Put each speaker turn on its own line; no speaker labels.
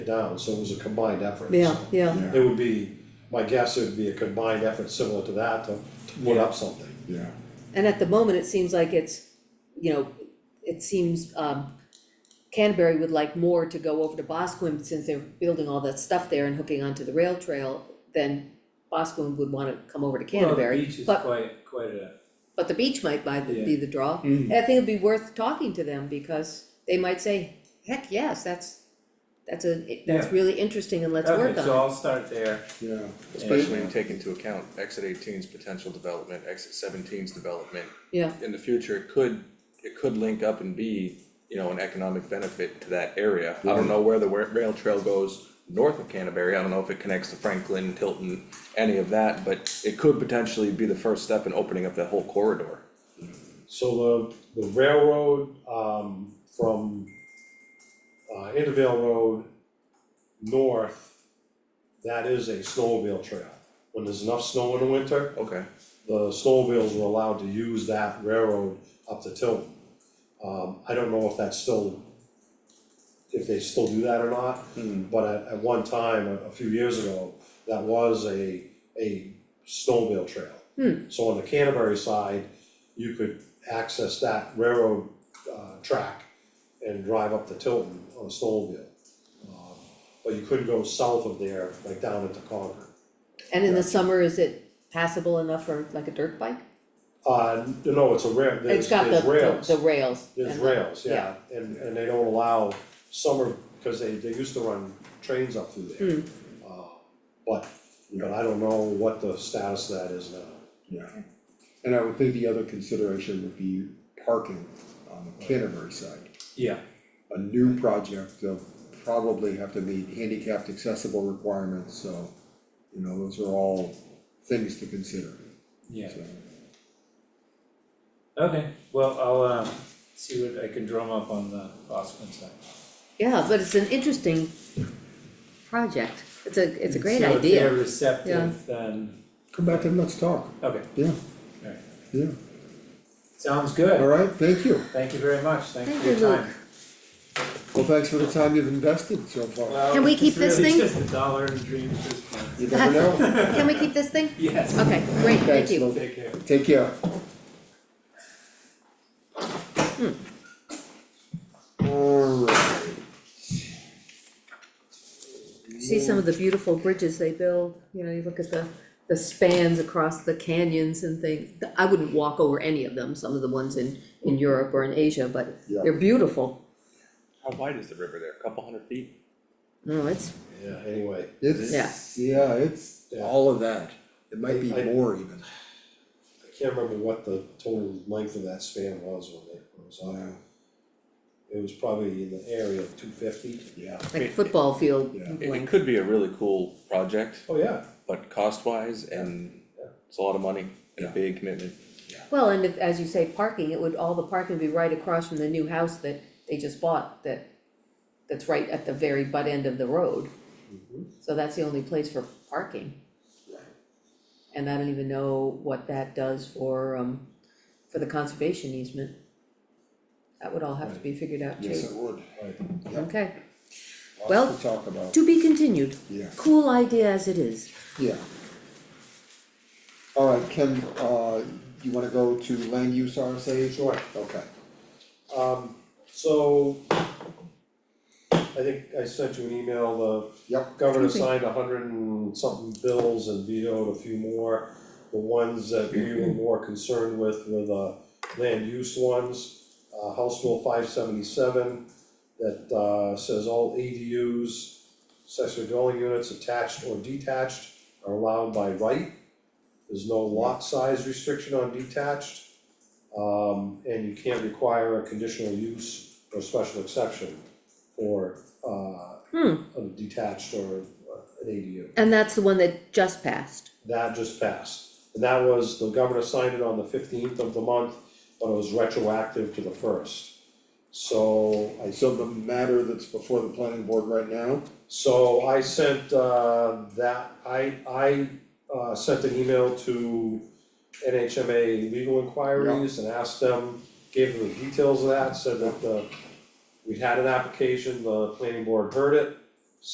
it down, so it was a combined effort. so
Yeah, yeah,
It would be, my guess it would be a combined effort similar to that to to put up something.
Yeah,
and at the moment, it seems like it's, you know, it seems, um, Canterbury would like more to go over to Bosquen since they're building all that stuff there and hooking onto the rail trail than Bosquen would wanna come over to
Well, the
Canterbury,
beach is
but,
quite, quite a,
but the beach might buy, the- be
Yeah. Mm-hmm.
the draw. And I think it'd be worth talking to them because they might say, heck, yes, that's, that's a, that's
Yeah.
really interesting and let's work on it.
okay, so I'll start there.
yeah,
Especially when you take into account exit 18's potential development, exit 17's development.
Yeah.
In the future, it could, it could link up and be, you know, an economic benefit to that area. I don't know where the wa- rail trail goes north of Canterbury, I don't know if it connects to Franklin, Tilton, any of that, but it could potentially be the first step in opening up that whole corridor.
So the, the railroad, um, from, uh, Intervale Road north, that is a snowmobile trail. When there's enough snow in the winter,
Okay.
the snowmobiles were allowed to use that railroad up to Tilton. Um, I don't know if that's still, if they still do that or not, but at, at one time, a, a few years ago, that was a, a snowmobile trail.
Hmm.
So on the Canterbury side, you could access that railroad, uh, track and drive up to Tilton on a snowmobile. Um, But you couldn't go south of there, like down into Concord.
And in the summer, is it passable enough for like a dirt bike?
Uh, no, it's a rail,
It's
there's,
got the,
there's rails.
the the rails.
There's
and the-
rails, yeah, and, and they don't allow summer, cause they, they used to run trains up through there. Uh, But, but I don't know what the status of that is now.
yeah. And I would think the other consideration would be parking on the Canterbury side.
Yeah,
A new project, they'll probably have to meet handicapped accessible requirements, so, you know, those are all things to consider,
yeah,
so.
okay, well, I'll um see what I can drum up on the Bosquen side.
Yeah, but it's an interesting project. It's a, it's a
And
great
So if they're
idea. Yeah.
receptive, then,
Come back and let's talk,
okay,
yeah,
alright,
yeah,
sounds
all
good,
right, thank you.
thank you very much, thanks
Thank
for your
you, Luke.
time.
Well, thanks for the time you've invested so far,
Well,
Can we keep
it's
this
really
thing?
just a dollar and dreams at this point.
you never know.
Can we keep this thing?
Yes.
Okay, great, thank
Thanks,
you.
Lou.
Take care.
Take care. Hmm. Alright.
See some of the beautiful bridges they build, you know, you look at the, the spans across the canyons and things. I wouldn't walk over any of them, some of the ones in, in Europe or in Asia, but
Yeah.
they're beautiful.
How wide is the river there? A couple hundred feet?
No, it's,
Yeah, anyway,
It's, yeah, it's
Yeah.
all of that, it might be
I- I-
more even,
I can't remember what the total length of that span was when it when it was on. It was probably in the area of two fifty.
yeah,
like football field
Yeah.
It- It
length.
could be a really cool project,
Oh, yeah,
but cost wise and it's a lot of money and a
Yeah.
big commitment.
Well, and if, as you say, parking, it would, all the parking would be right across from the new house that they just bought, that, that's right at the very butt end of the road.
Mm-hmm.
So that's the only place for parking. And I don't even know what that does for, um, for the conservation easement. That would all have to be figured out
yes,
too,
it would,
right,
okay, Well,
lots to talk about,
to be continued,
yeah,
cool idea as it is.
yeah. Alright, Ken, uh, you wanna go to land use RSA?
sure.
Okay,
Um, so I think I sent you an email, the
yep,
governor
Okay.
signed a hundred and something bills and vetoed a few more. The ones that we were more concerned with were the land use ones, uh, House Bill five seventy-seven that, uh, says all ADUs, accessory dwelling units attached or detached are allowed by right. There's no lot size restriction on detached. Um, and you can't require a conditional use or special exception for, uh,
Hmm,
a detached or uh, an ADU.
and that's the one that just passed,
That just passed. And that was, the governor signed it on the fifteenth of the month, but it was retroactive to the first. So I,
so the matter that's before the planning board right now,
so I sent uh that, I I uh sent an email to NHMA legal inquiries and asked them, uh, gave them the details of that, said that the we had an application, the planning board heard it,